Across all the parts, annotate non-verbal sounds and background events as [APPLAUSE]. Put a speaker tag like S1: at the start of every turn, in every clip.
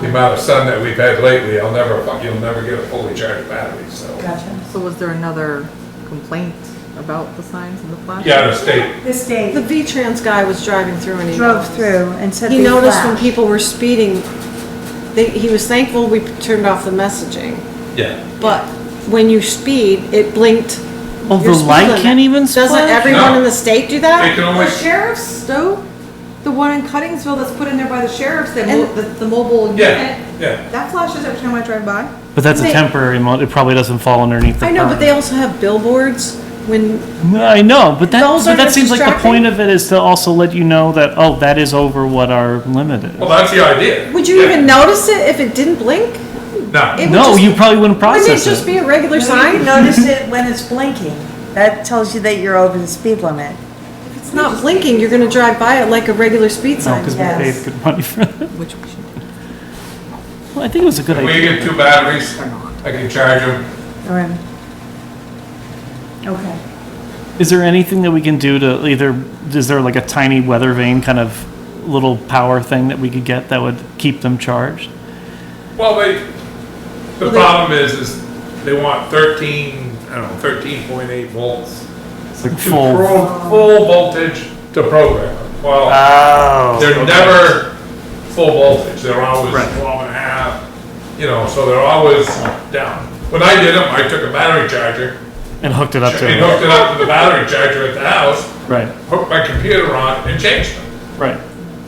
S1: the amount of sun that we've had lately, I'll never, you'll never get a fully charged battery, so.
S2: Gotcha.
S3: So was there another complaint about the signs and the flashing?
S1: Yeah, the state,
S2: The state
S4: The V-Trans guy was driving through and he
S2: drove
S4: noticed.
S2: through and said
S4: He
S2: they
S4: noticed when
S2: flashed.
S4: people were speeding, they, he was thankful we turned off the messaging.
S1: yeah.
S4: But when you speed, it blinked.
S5: Oh,
S4: your
S5: the
S4: speed
S5: light
S4: limit.
S5: can't even
S4: Doesn't
S5: splash?
S4: everyone
S1: No.
S4: in the state do
S1: They
S4: that?
S1: can
S6: The
S1: only,
S6: sheriff's, though, the one in Cuttingsville that's put in there by the sheriff's, that mo- the, the mobile
S1: yeah,
S6: unit,
S1: yeah.
S6: that flashes every time I drive by.
S5: But that's a
S4: They-
S5: temporary mode, it probably doesn't fall underneath the
S4: I know, but they
S5: permit.
S4: also have billboards when,
S5: No, I know, but that,
S4: Those
S5: but that
S4: aren't
S5: seems like the
S4: distracting.
S5: point of it is to also let you know that, oh, that is over what our limit is.
S1: Well, that's the idea.
S4: would you
S1: Yeah.
S4: even notice it if it didn't blink?
S1: No,
S4: It would
S5: No,
S4: just-
S5: you probably wouldn't
S4: Wouldn't it
S5: process
S4: just
S5: it.
S4: be a regular
S2: You
S4: sign?
S2: notice it when
S4: [LAUGHS]
S2: it's blinking. That tells you that you're over the speed limit.
S4: If It's not blinking, you're gonna drive by it like a regular speed
S5: No,
S4: sign.
S5: because we
S2: Yes.
S5: paid good money for it.
S3: [LAUGHS] Which we should do.
S5: Well, I think it was a good
S1: if we
S5: idea.
S1: get two batteries, I can charge them.
S2: Or- Okay.
S5: Is there anything that we can do to either, is there like a tiny weather vane kind of little power thing that we could get that would keep them charged?
S1: Well, they, the problem is, is they want thirteen, I don't know, thirteen point eight volts.
S5: It's like
S1: to
S5: full.
S1: pro- Full voltage to program. Well,
S5: Oh.
S1: they're
S5: okay.
S1: never full voltage, they're always
S5: Right.
S1: twelve and a half, you know, so they're always down. When I did them, I took a battery charger
S5: And hooked it up
S1: and
S5: to it.
S1: hooked it up to the battery charger at the house,
S5: Right,
S1: hooked my computer on and changed them.
S5: right.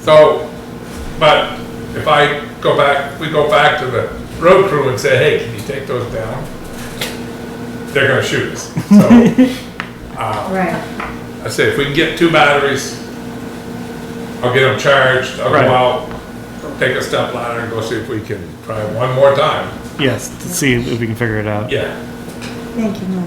S1: So, but if I go back, we go back to the road crew and say, hey, can you take those down? They're gonna shoot us. So,
S2: Right.
S1: I say, if we can get two batteries, I'll get them charged, I'll go
S5: Right.
S1: out, take a step ladder and go see if we can try one more time.
S5: Yes, to see if we can figure it out.
S1: Yeah,
S2: Thank you, Mike.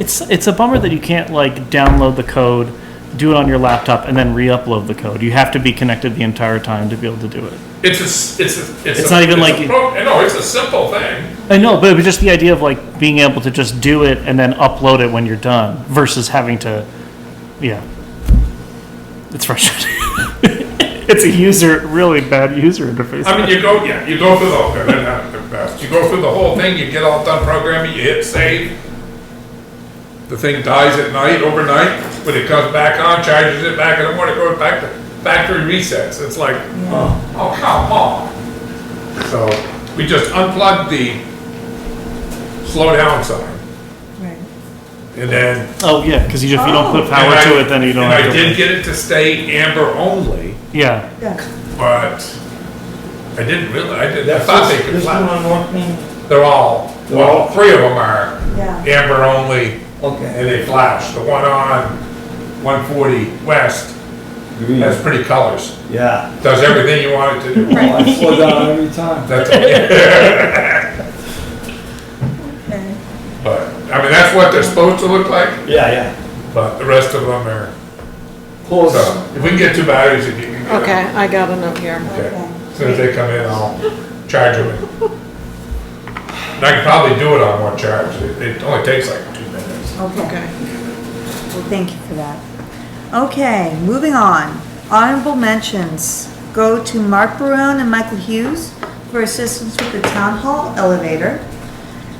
S5: It's it's a bummer that you can't like download the code, do it on your laptop, and then re-upload the code. You have to be connected the entire time to be able to do it.
S1: it's a, s- it's a. a-
S5: It's not even
S1: a
S5: like-
S1: pro- No, it's a simple thing.
S5: I know, but it was just the idea of like being able to just do it and then upload it when you're done versus having to, yeah. It's frustrating. [LAUGHS] it's a user really bad user interface.
S1: I mean, you go, yeah, you go through the, whole- they're not the best. You go through the whole thing, you get all done programming, you hit save. The thing dies at night, overnight, when it comes back on, charges it back in the morning, goes back to factory resets. It's like, oh, oh, come on. So we just unplugged the slow down sign
S2: Right.
S1: and then.
S5: oh yeah, because you, if you don't put power
S1: and I-
S5: to it, then you don't.
S1: And
S5: have
S1: I
S5: to
S1: did get it to stay amber only,
S5: yeah,
S2: Yeah.
S1: but I didn't really, I didn't, I
S7: That's
S1: thought they
S7: this-
S1: could
S7: This one
S1: flash.
S7: on North Main?
S1: They're all, well, three of them are
S2: Yeah.
S1: amber only, and
S7: Okay.
S1: they flash. The one on 140 West has pretty colors.
S7: Yeah.
S1: Does everything you want it to do.
S7: Oh, I slow down every time.
S1: That's okay. But, I mean, that's what they're supposed to look like,
S7: Yeah, yeah.
S1: but the rest of them are,
S7: Close.
S1: so if we can get two batteries, if you can. get
S4: Okay,
S1: them.
S4: I got a note here.
S1: Okay. As soon as they come in, I'll charge them. And I can probably do it on one charge. It it only takes like two minutes.
S2: Okay.
S4: Okay.
S2: Well, thank you for that. Okay, moving on. Honorable mentions go to Mark Barone and Michael Hughes for assistance with the town hall elevator.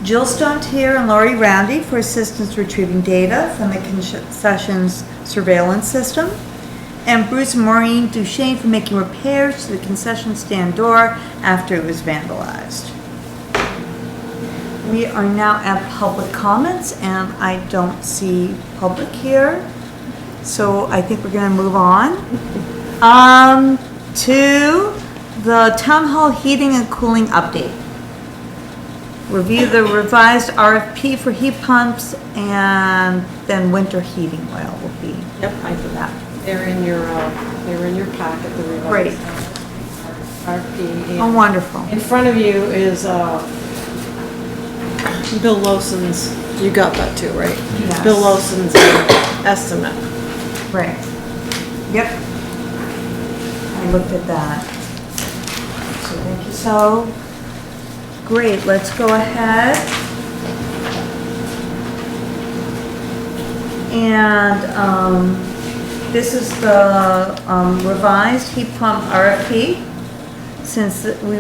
S2: Jill Stontier and Lori Roundy for assistance retrieving data from the concessions surveillance system. And Bruce and Maureen Duchesne for making repairs to the concession stand door after it was vandalized. We are now at public comments, and I don't see public here, so I think we're gonna move on. Um, to the town hall heating and cooling update. Review the revised RFP for heat pumps, and then winter heating oil will be
S4: Yep, I
S2: for
S4: did that.
S2: that.
S4: They're in your, uh, they're in your packet, the revised.
S2: Great.
S4: RFP.
S2: Oh, wonderful.
S4: In front of you is, uh, Bill Lawson's, you got that too, right?
S2: Yes.
S4: Bill Lawson's estimate.
S2: Right. Yep. I looked at that. So thank you. So, great, let's go ahead. And, um, this is the um, revised heat pump RFP. Since we